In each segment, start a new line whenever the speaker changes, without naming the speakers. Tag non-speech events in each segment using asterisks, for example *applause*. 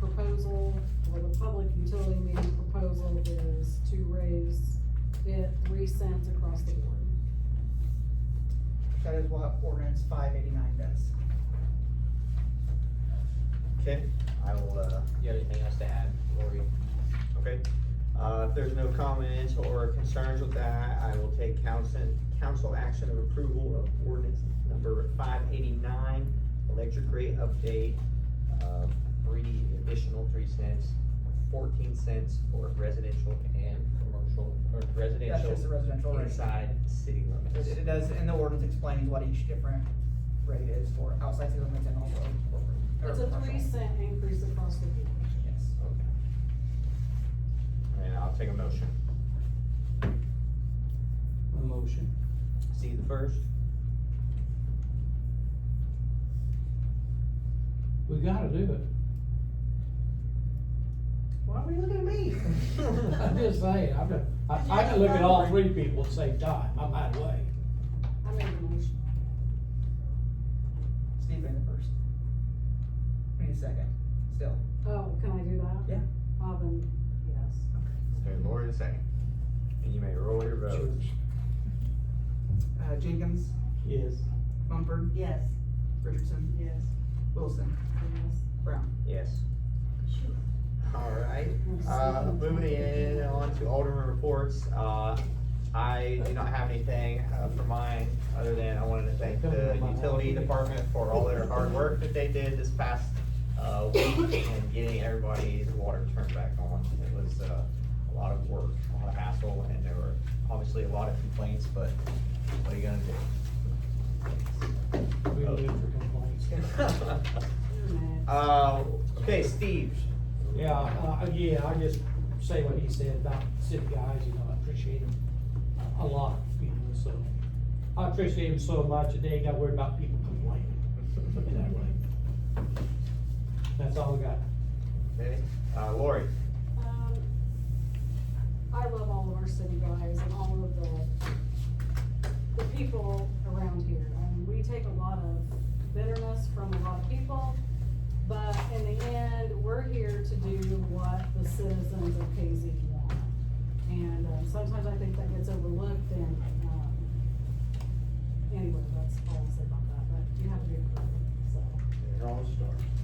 proposal, or the public utility meter proposal is to raise it three cents across the board.
That is what ordinance five eighty-nine does.
Okay, I will, uh,
You got anything else to add, Lori?
okay. Uh, if there's no comments or concerns with that, I will take council, council action of approval of ordinance number five eighty-nine, electric rate update, uh, three, additional three cents, fourteen cents for residential and commercial, or
That's just the residential
residential
rate.
inside city limits.
It it does, and the ordinance explains what each different rate is for outside city limits and also corporate. or
It's a three
commercial.
cent increase across the board.
Yes.
Okay. And I'll take a motion.
A motion.
See the first?
We gotta do it.
Why are you looking at me?
I'm just saying, I'm, I, I can look at all three people at the same time, I'm that way.
I made the motion.
*laughs* Steve made the first. We need a second, still.
Oh, can I do that?
Yeah.
Uh, then, yes.
Okay, Lori the second. And you may roll your vote.
Uh, Jenkins,
Yes.
Mumford,
Yes.
Richardson,
Yes.
Wilson,
Yes.
Brown.
Yes. Alright, uh, moving in on to Alderman reports, uh, I do not have anything uh, for mine, other than I wanted to thank the utility department for all their hard work that they did this past, uh, week and getting everybody's water turned back on. It was, uh, a lot of work, a lot of hassle, and there were obviously a lot of complaints, but what are you gonna
We live for complaints.
do? *laughs*
You're mad.
Uh, okay, Steve,
Yeah, uh, yeah, I just say what he said about city guys, you know, I appreciate him a- a lot, you know, so. I appreciate him so much, and they ain't got worried about people complaining, in that way. That's all we got.
Okay, uh, Lori,
Um, I love all of our city guys and all of the, the people around here. And we take a lot of bitterness from a lot of people, but in the end, we're here to do what the citizens of KZ want. And um, sometimes I think that gets overlooked and, um, anyway, that's all I'll say about that, but you have to be a pro, so.
you're all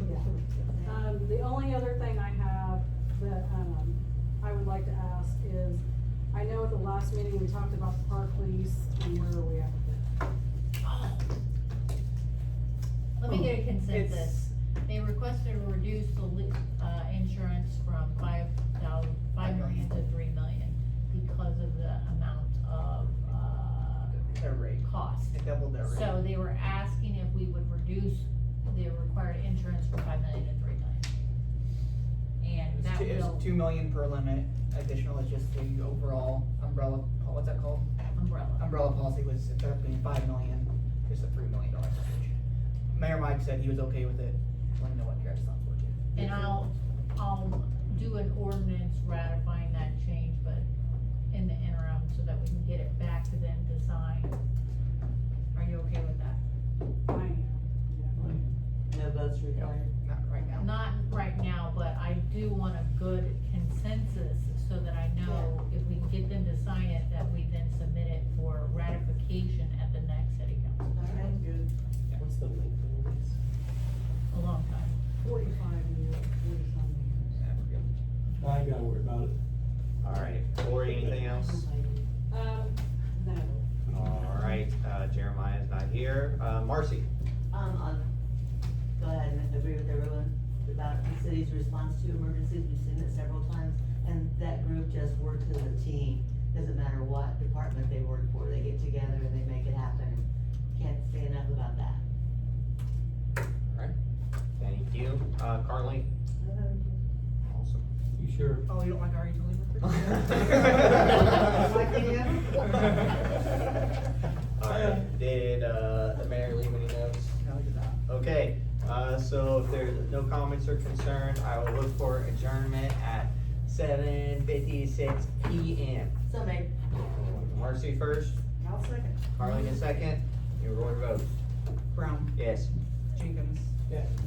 Yeah. Um, the only other thing I have that, um, I would like to ask is, I know at the last meeting, we talked about the park lease, and where are we at with it?
Oh. Let me get a consensus. They requested to reduce the, li- uh, insurance from five thousand, five million to three million because of the amount of, uh,
Their rate,
cost.
it doubled their rate.
So they were asking if we would reduce the required insurance from five million to three million. And
It's
that
two- it's
will
Two million per limit, additional is just the overall umbrella, oh, what's that called?
umbrella.
umbrella policy was instead of being five million, it's a three million dollar package. Mayor Mike said he was okay with it, let me know what your guys' thoughts were too.
And I'll, I'll do an ordinance ratifying that change, but in the interim, so that we can get it back to them to sign. Are you okay with that?
I am.
No votes required.
Not right now.
Not right now, but I do want a good consensus, so that I know if we can get them to sign it, that we then submit it for ratification at the next city council.
I'm good.
Yeah.
What's the length of the lease?
A long time.
Forty-five years, forty-some years.
Yeah, we're good.
I ain't gotta worry about it.
Alright, Lori, anything else?
Um, no.
Alright, uh, Jeremiah's not here, uh, Marcy,
Um, I'll go ahead and agree with everyone about the city's response to emergencies, we've seen it several times, and that group just works as a team. Doesn't matter what department they work for, they get together and they make it happen. Can't say enough about that.
thank you, uh, Carly? Awesome.
You sure?
Oh, you don't like our *laughs* utility worker? *laughs* Like we
*laughs*
do?
Alright, did, uh, the mayor leave any notes?
No, we did not.
Okay, uh, so if there's no comments or concerns, I will look for adjournment at seven fifty-six P M.
So maybe
Marcy first,
I'll second.
Carly in second, you roll your vote.
Brown,
Yes.
Jenkins.
Yes.